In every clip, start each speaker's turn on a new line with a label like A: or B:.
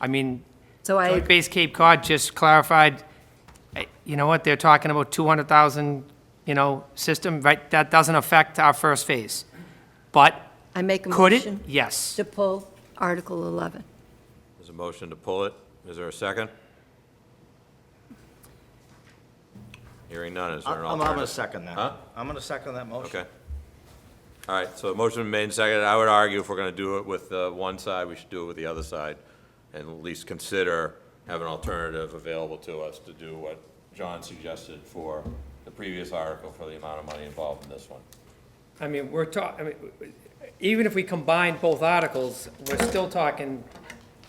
A: I mean,
B: So I,
A: Joint Base Cape Cod just clarified, eh, you know what, they're talking about 200,000, you know, system, right? That doesn't affect our first phase. But
B: I make a
A: could it?
B: motion
A: Yes.
B: to pull Article 11.
C: There's a motion to pull it. Is there a second? Hearing none, is there an
D: I'm, I'm gonna
C: alternative?
D: second that.
C: Huh?
D: I'm gonna second that motion.
C: Okay. All right, so the motion made and seconded. I would argue if we're going to do it with uh, one side, we should do it with the other side, and at least consider, have an alternative available to us to do what John suggested for the previous article for the amount of money involved in this one.
A: I mean, we're talking, I mean, even if we combine both articles, we're still talking,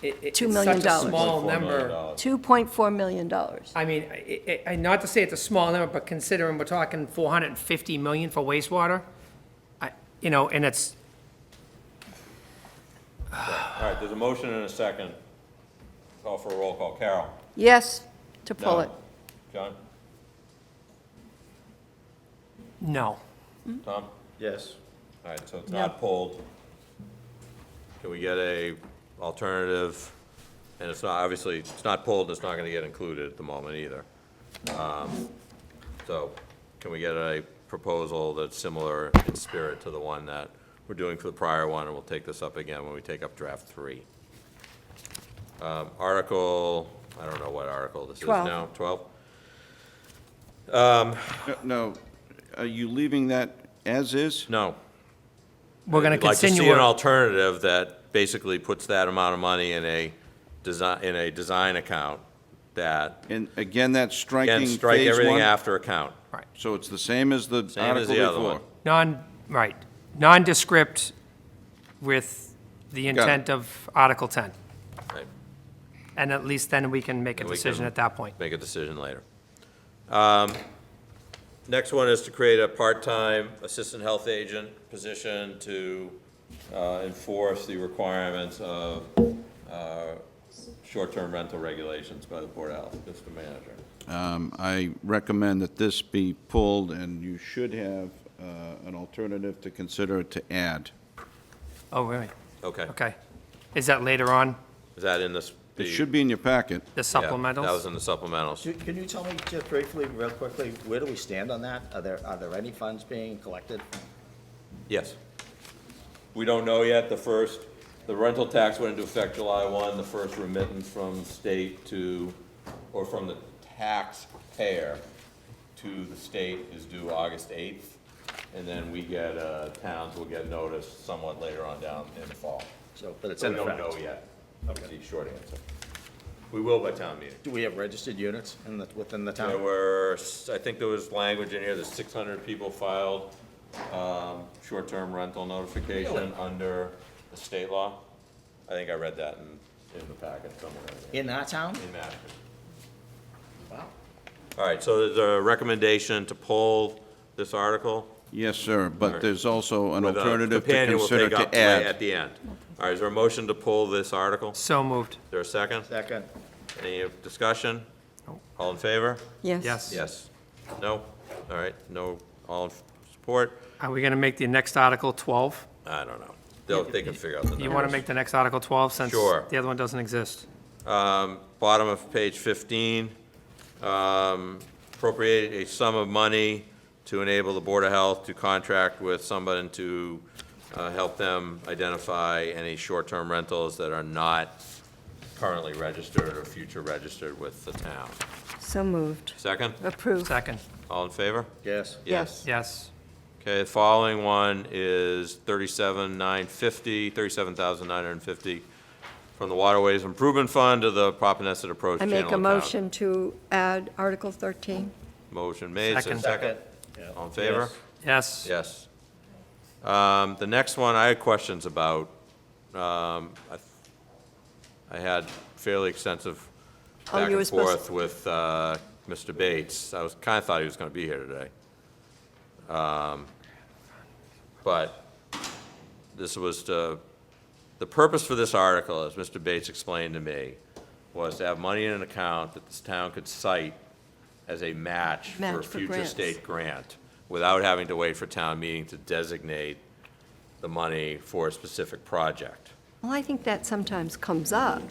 A: it, it's
B: Two million
A: such a
B: dollars.
A: small
C: $1.4 million
A: number.
C: dollars.
B: $2.4 million. dollars.
A: I mean, I- I- I- not to say it's a small number, but considering we're talking 450 million for wastewater, I, you know, and it's,
C: All right, there's a motion and a second. Call for a roll call. Carol?
B: Yes, to
C: No.
B: pull it.
C: John?
A: no.
C: Tom?
D: Yes.
C: All right, so it's not pulled. Can we get a alternative? And it's not, obviously, it's not pulled, it's not gonna get included at the moment either. Um, So, can we get a proposal that's similar in spirit to the one that we're doing for the prior one, and we'll take this up again when we take up draft three? Um, Article, I don't know what article this is
B: Twelve.
C: now, twelve?
E: No, are you leaving that as is?
C: No.
A: We're going to
C: We'd like to
A: continue.
C: see an
A: it.
C: alternative that basically puts that amount of money in a design, in a design account that,
E: And again, that's striking
C: again,
E: phase
C: strike everything
E: one?
C: after account.
E: So it's the same as the
C: Same as
E: article
C: the other one.
E: before?
A: Non, right, nondescript with the
E: it.
A: intent of Article 10.
C: Right.
A: And at least then we can make a
C: And we
A: decision
C: can-
A: at that point.
C: Make a decision later. Um, Next one is to create a part-time assistant health agent position to uh, enforce the requirements of uh, short-term rental regulations by the Board of Health, Mr. Manager.
E: Um, I recommend that this be pulled, and you should have uh, an alternative to consider to add.
A: Oh, really?
C: Okay,
A: Okay. Is that later on,
C: is that in this?
E: It should be in your packet.
A: the
C: Yeah, That was
A: supplementals?
C: in the supplementals.
D: Can can you tell me just briefly, real quickly, where do we stand on that? Are there, are there any funds being collected?
C: Yes. We don't know yet, the first, the rental tax went into effect July one, the first remittance from state to, or from the taxpayer to the state is due August eighth, and then we get, uh, towns will get notice somewhat later on down in the fall.
D: So, but it's
C: So
D: in
C: we don't
D: effect.
C: know yet, is the short answer. We will by town meeting.
D: Do we have registered units in the, within the
C: There
D: town?
C: were, s- I think there was language in here, that six hundred people filed, um, short-term rental notification under the state law. I think I read that in, in the packet somewhere,
D: In our town?
C: in Mashpee.
D: Wow.
C: All right, so there's a recommendation to pull this article.
E: Yes, sir,
C: right.
E: but there's also an
C: with uh, a
E: alternative to
C: companion we'll
E: consider
C: take up
E: to
C: la- At
E: add.
C: the end. All right, is there a motion to pull this article? Is
A: So moved.
C: there a second?
D: Second.
C: Any discussion?
A: No.
C: All in favor?
B: Yes.
A: Yes.
C: Yes. No? All right, no, all in f- support?
A: Are we going to make the next Article 12?
C: I don't know. They'll, they can figure out the numbers.
A: You want to make the next Article 12 since
C: Sure.
A: the other one doesn't exist?
C: Um, bottom of page fifteen, um, appropriate a sum of money to enable the Board of Health to contract with someone to, uh, help them identify any short-term rentals that are not currently registered or future registered with the town.
B: So moved.
C: Second?
B: Approved.
A: Second,
C: All in favor?
D: Yes.
B: Yes.
A: yes.
C: Okay, the following one is thirty-seven nine fifty, thirty-seven thousand nine hundred and fifty, from the Waterways Improvement Fund to the Papaneset Approach
B: I
C: Channel
B: make a
C: Account.
B: motion to add Article 13.
C: Motion made, is there a
A: Second.
C: second.
D: Yeah.
C: All in favor?
A: Yes.
C: Yes. Um, The next one I had questions about. Um, I th- I had fairly extensive
B: Oh,
C: back
B: you were
C: and
B: supposed-
C: forth with uh, Mr. Bates. I was, kind of thought he was going to be here today. Um, But this was to, the purpose for this article, as Mr. Bates explained to me, was to have money in an account that this town could cite as a match for a
B: Match for
C: future
B: grants.
C: state grant, without having to wait for town meeting to designate the money for a specific project.
B: Well, I think that sometimes comes up.